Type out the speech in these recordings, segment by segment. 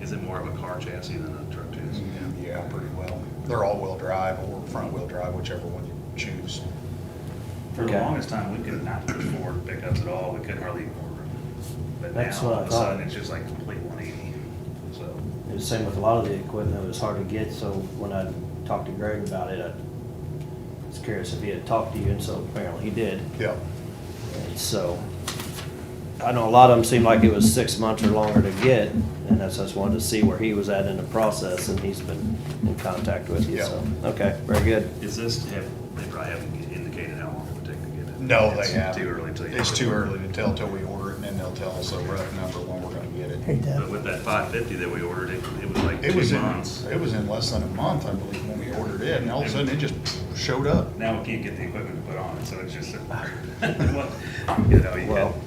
Is it more of a car chassis than a truck chassis? Yeah, pretty well. They're all-wheel drive or front-wheel drive, whichever one you choose. For the Okay. longest time, we could not push forward pickups at all, we couldn't hardly afford them. But That's now, what all I of a thought. sudden, it's just like complete one eighty, so. It was the same with a lot of the equipment, it was hard to get, so when I talked to Greg about it, I was curious if he had talked to you, and so apparently he did. Yeah. And So, I know a lot of them seemed like it was six months or longer to get, and that's, just wanted to see where he was at in the process, and he's been in contact with you, Yeah. so, okay, very good. Is this, have, they probably haven't indicated how long it would take to get it? No, they It's haven't. Too early to. It's too early to tell till we order it, and then they'll tell us a rough number when we're gonna get it. Hey, Deb. But with that five fifty that we ordered, it, it was like It was two in, months. it was in less than a month, I believe, when we ordered it, and all of a sudden, it just showed up. Now we can't get the equipment to put on it, so it's just, a- what- you know, you Well, got,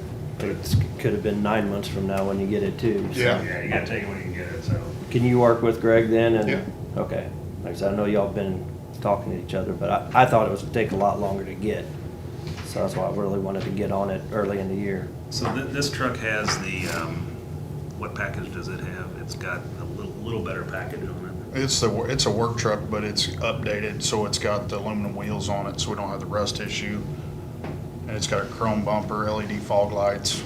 it could have been nine months from now when you get it too. so. Yeah. yeah, you gotta take it when you can get it, so. Can you work with Greg then? And- Yeah. Okay, like I said, I know y'all been talking to each other, but I, I thought it was gonna take a lot longer to get. So that's why I really wanted to get on it early in the year. So thi- this truck has the, um, what package does it have? It's got a little, little better package on It's the, wor- it's a work truck, but it's updated, so it's got the aluminum wheels on it, so we don't have the rust issue. And it's got a chrome bumper, LED fog lights,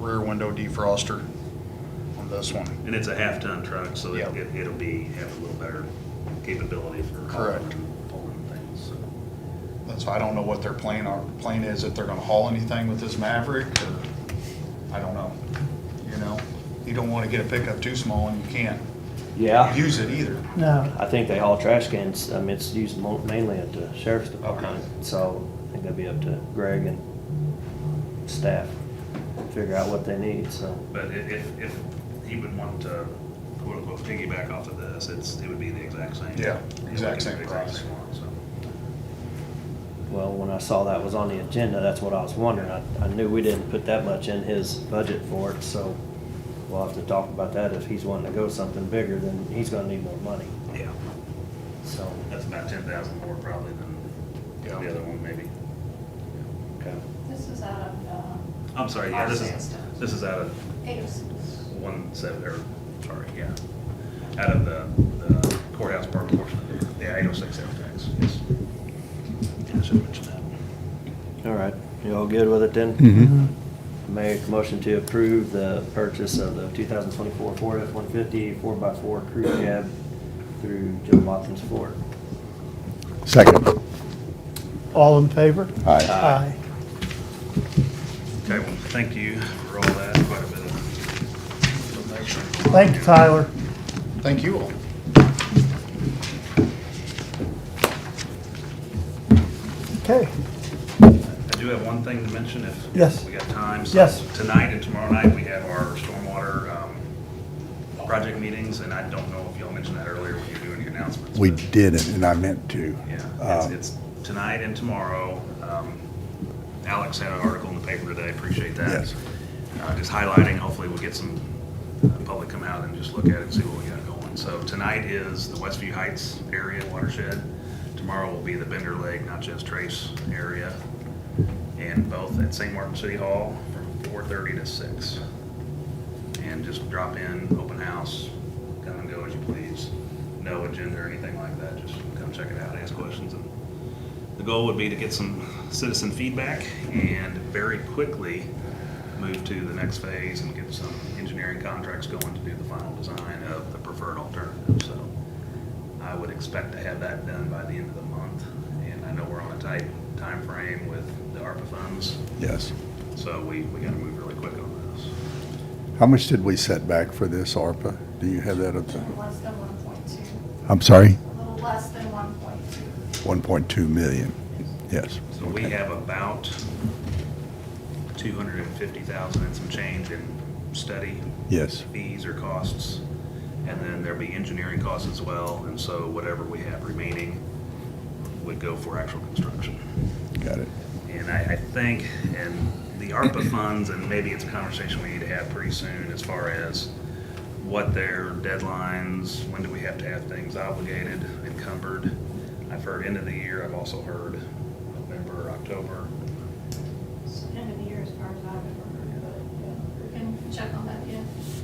rear window defroster on this one. it, and it's a half-ton truck, so it- Yeah. it- it'll be, have a little better capability for hauling Correct. and pulling things, so. That's why I don't know what their plan, our plan is, if they're gonna haul anything with this Maverick, or, I don't know, you know? You don't wanna get a pickup too small and you can't Yeah, use it either. No, I think they haul trash cans, um, it's used mo- mainly at the sheriff's department. Okay. So I think that'd be up to Greg and staff, figure out what they need, so. But i- if, if he would want to quote-unquote piggyback off of this, it's, it would be the exact same. Yeah, It exact would same be the price. one, so. Well, when I saw that was on the agenda, that's what I was wondering. I, I knew we didn't put that much in his budget for it, so we'll have to talk about that. If he's wanting to go something bigger, then he's gonna need more money, Yeah, so. that's about ten thousand more probably than the Yeah. other one, maybe. okay. This is out of, um, I'm sorry, yeah, this Our is, system. this is out of eight oh six. one seven, or, sorry, yeah, out of the the courthouse park portion of the 806 sales tax, oh yes. I should mention that. All right, you all good with it then? Make a motion to approve the purchase of the 2024 Ford F-150 4x4 crew cab through Joe Watkins Ford. Second. all in favor? Aye. Uh, Aye. Okay, well, thank you for all that, quite a bit of information. Thank you, Tyler. Thank you all. Okay, I do have one thing to mention if. if Yes. We got time. So Yes. Tonight and tomorrow night, we have our stormwater um, project meetings, and I don't know if y'all mentioned that earlier when you were doing your announcements. We but- didn't, and I meant to. Yeah, Um, Uh, it's, it's tonight and tomorrow. Um, Alex had an article in the paper today, appreciate that. Yes. Uh, Just highlighting, hopefully we'll get some uh, public come out and just look at it and see what we got going. So tonight is the Westview Heights area watershed. Tomorrow will be the Bender Lake, not just Trace area. And both at St. Martin City Hall from four-thirty to six. And just drop in, open house, come and go as you please. No agenda or anything like that, just come check it out, ask questions. and The goal would be to get some citizen feedback and very quickly move to the next phase and get some engineering contracts going to do the final design of the preferred alternative. So I would expect to have that done by the end of the month. And I know we're on a tight time frame with the ARPA funds, Yes. so we, we gotta move really quick on this. How much did we set back for this ARPA? Do you have that up there? Less than one point two, I'm sorry? a little less than one point two. 1.2 million. Yes. So we have about two hundred and fifty thousand and some change in study Yes. fees or costs. And then there'll be engineering costs as well, and so whatever we have remaining would go for actual construction. Got it. And I, I think, and the ARPA funds, and maybe it's a conversation we need to have pretty soon as far as what their deadlines, when do we have to have things obligated, encumbered. I've heard end of the year, I've also heard November, October. End of the year as far as I've ever heard, but yeah, we can check on that, yeah.